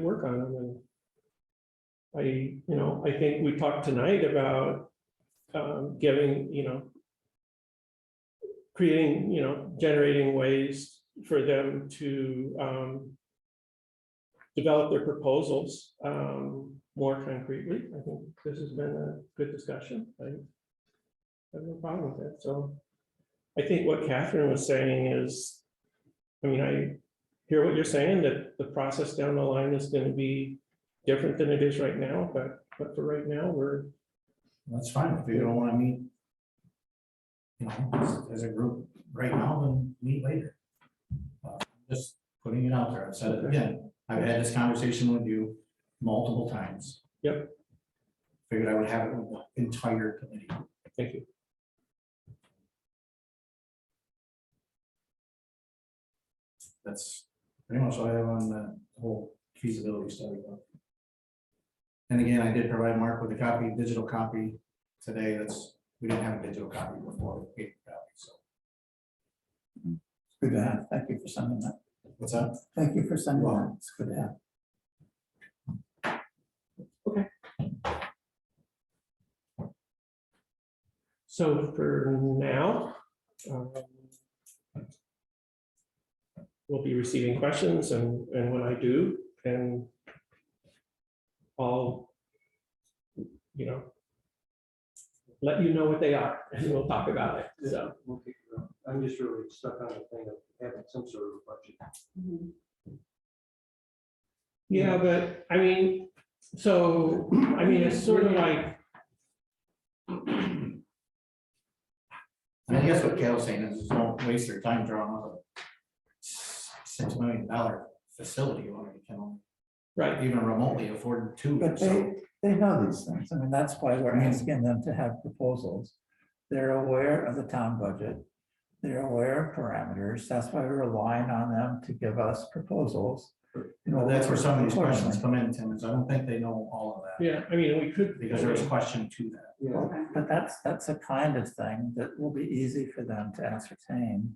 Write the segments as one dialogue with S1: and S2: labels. S1: work on them and. I, you know, I think we talked tonight about, um, giving, you know. Creating, you know, generating ways for them to, um. Develop their proposals, um, more concretely. I think this has been a good discussion. I have no problem with it, so. I think what Catherine was saying is, I mean, I hear what you're saying, that the process down the line is gonna be different than it is right now, but, but for right now, we're,
S2: That's fine, if you don't wanna meet. You know, as- as a group right now, then meet later. Uh, Just putting it out there, I've said it again, I've had this conversation with you multiple times.
S1: Yep.
S2: Figured I would have it with the entire committee.
S1: thank you.
S2: That's pretty much all I have on the whole feasibility study. And again, I did provide Mark with a copy, digital copy today. That's, we didn't have a digital copy before. paper copy. So
S3: Good to have. Thank you for sending that.
S2: What's that?
S3: Thank you for sending that. It's good to have.
S1: So for now, um, we'll be receiving questions and, and when I do, and I'll, you know, let you know what they are and we'll talk about it. So,
S4: We'll pick it up. I'm just really stuck on the thing of having some sort of a budget.
S1: yeah, but I mean, so, I mean, it's sort of like,
S2: And I guess what Gail's saying is, is don't waste your time drawing up a six million dollar facility when you can only
S1: right,
S2: even remotely afford two.
S3: But
S2: So
S3: they, they know these things. I mean, that's why we're asking them to have proposals. They're aware of the town budget. They're aware of parameters. That's why we're relying on them to give us proposals. You know,
S2: that's where some of these questions
S3: accordingly.
S2: come in, Tim, is I don't think they know all of that,
S1: yeah, I mean, we could.
S2: because there's a question to that.
S4: Yeah,
S3: But that's, that's a kind of thing that will be easy for them to ascertain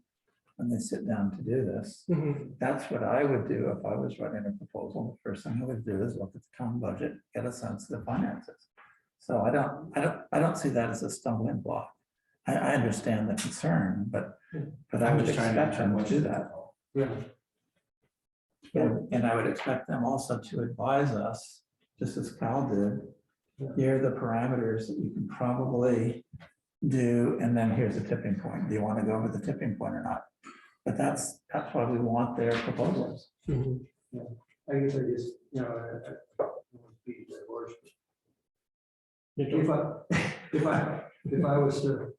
S3: when they sit down to do this.
S1: Mhm,
S3: That's what I would do if I was writing a proposal. The first thing I would do is look at the town budget, get a sense of the finances. So I don't, I don't, I don't see that as a stumbling block. I, I understand the concern, but, but I
S2: I'm
S3: would
S2: just trying to
S3: expect
S2: understand
S3: them
S2: what
S3: to do that.
S4: yeah.
S3: And and I would expect them also to advise us, just as Cal did, here are the parameters that you can probably do, and then here's the tipping point. Do you want to go over the tipping point or not? But that's, that's why we want their proposals.
S1: mhm.
S4: I guess I just, you know, I- I don't want to beat that horse, but
S1: You
S4: If
S1: don't-
S4: I, if I, if I was to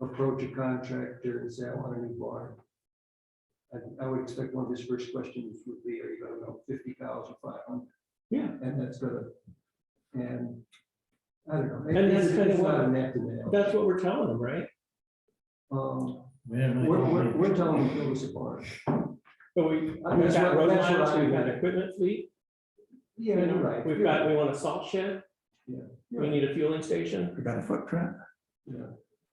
S4: approach a contractor and say, I want a new barn. I, I would expect one of his first questions would be, are you gonna go fifty thousand five hundred?
S1: Yeah.
S4: And that's gonna, and, I don't know.
S1: And that's
S4: it's-
S1: kinda
S4: it's not
S1: what-
S4: a net to net.
S1: That's what we're telling them, right?
S4: Um,
S2: We didn't really
S4: we're,
S2: go
S4: we're,
S2: deep.
S4: we're telling him it was a barn.
S1: But we, we've
S4: That's
S1: got
S4: what-
S1: road
S4: that's what
S1: lines,
S4: I-
S1: we've got equipment fleet.
S4: Yeah,
S1: you know,
S4: you're right.
S1: We've got, we want a salt shed.
S4: Yeah.
S1: We need a fueling station.
S3: We got a footprint.
S4: Yeah,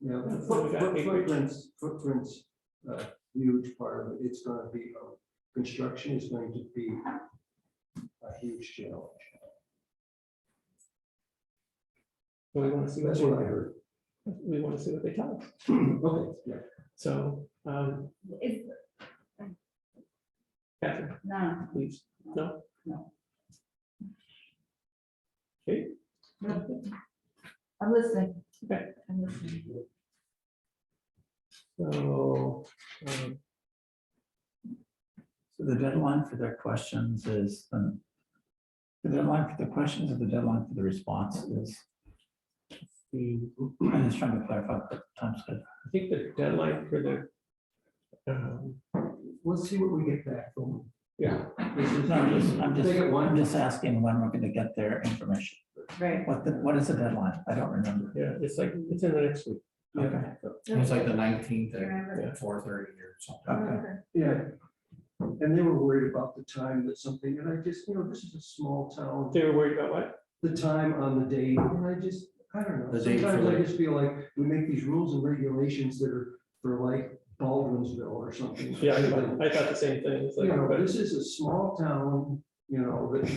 S4: yeah,
S1: Yeah,
S4: foot-
S1: so we got
S4: foot-
S1: acreage.
S4: footprints, footprints, uh, huge part of it, it's gonna be, uh, construction is going to be a huge challenge.
S1: We want to see what
S4: That's
S1: they,
S4: what I heard.
S1: we want to see what they tell us.
S4: Okay, yeah,
S1: So, um,
S5: Is,
S1: Catherine,
S5: no,
S1: please. No?
S5: No.
S1: Okay.
S5: I'm listening.
S1: Okay.
S5: I'm listening.
S1: So, um,
S3: So the deadline for their questions is, um, the deadline for the questions or the deadline for the response is,
S1: the,
S3: I'm just trying to clarify the time schedule.
S1: I think the deadline for the, um,
S4: let's see what we get back from.
S1: yeah,
S4: This is-
S3: No, I'm just, I'm just,
S4: They get
S3: I'm
S4: one,
S3: just asking when we're gonna get their information.
S5: Right.
S3: What, the what is the deadline? I don't remember.
S1: yeah, it's like, it's in the next week.
S3: Okay,
S2: It was like the nineteenth
S5: Remember.
S2: at four thirty or something.
S3: okay.
S4: yeah. And they were worried about the time that something, and I just, you know, this is a small town.
S1: They were worried about what?
S4: the time on the date, and I just, I don't know,
S2: The date for
S4: sometimes I
S2: like-
S4: just feel like we make these rules and regulations that are for like Baldwinsville or something.
S1: Yeah, I I thought the same thing. It's like,
S4: You know,
S1: but-
S4: this is a small town, you know, that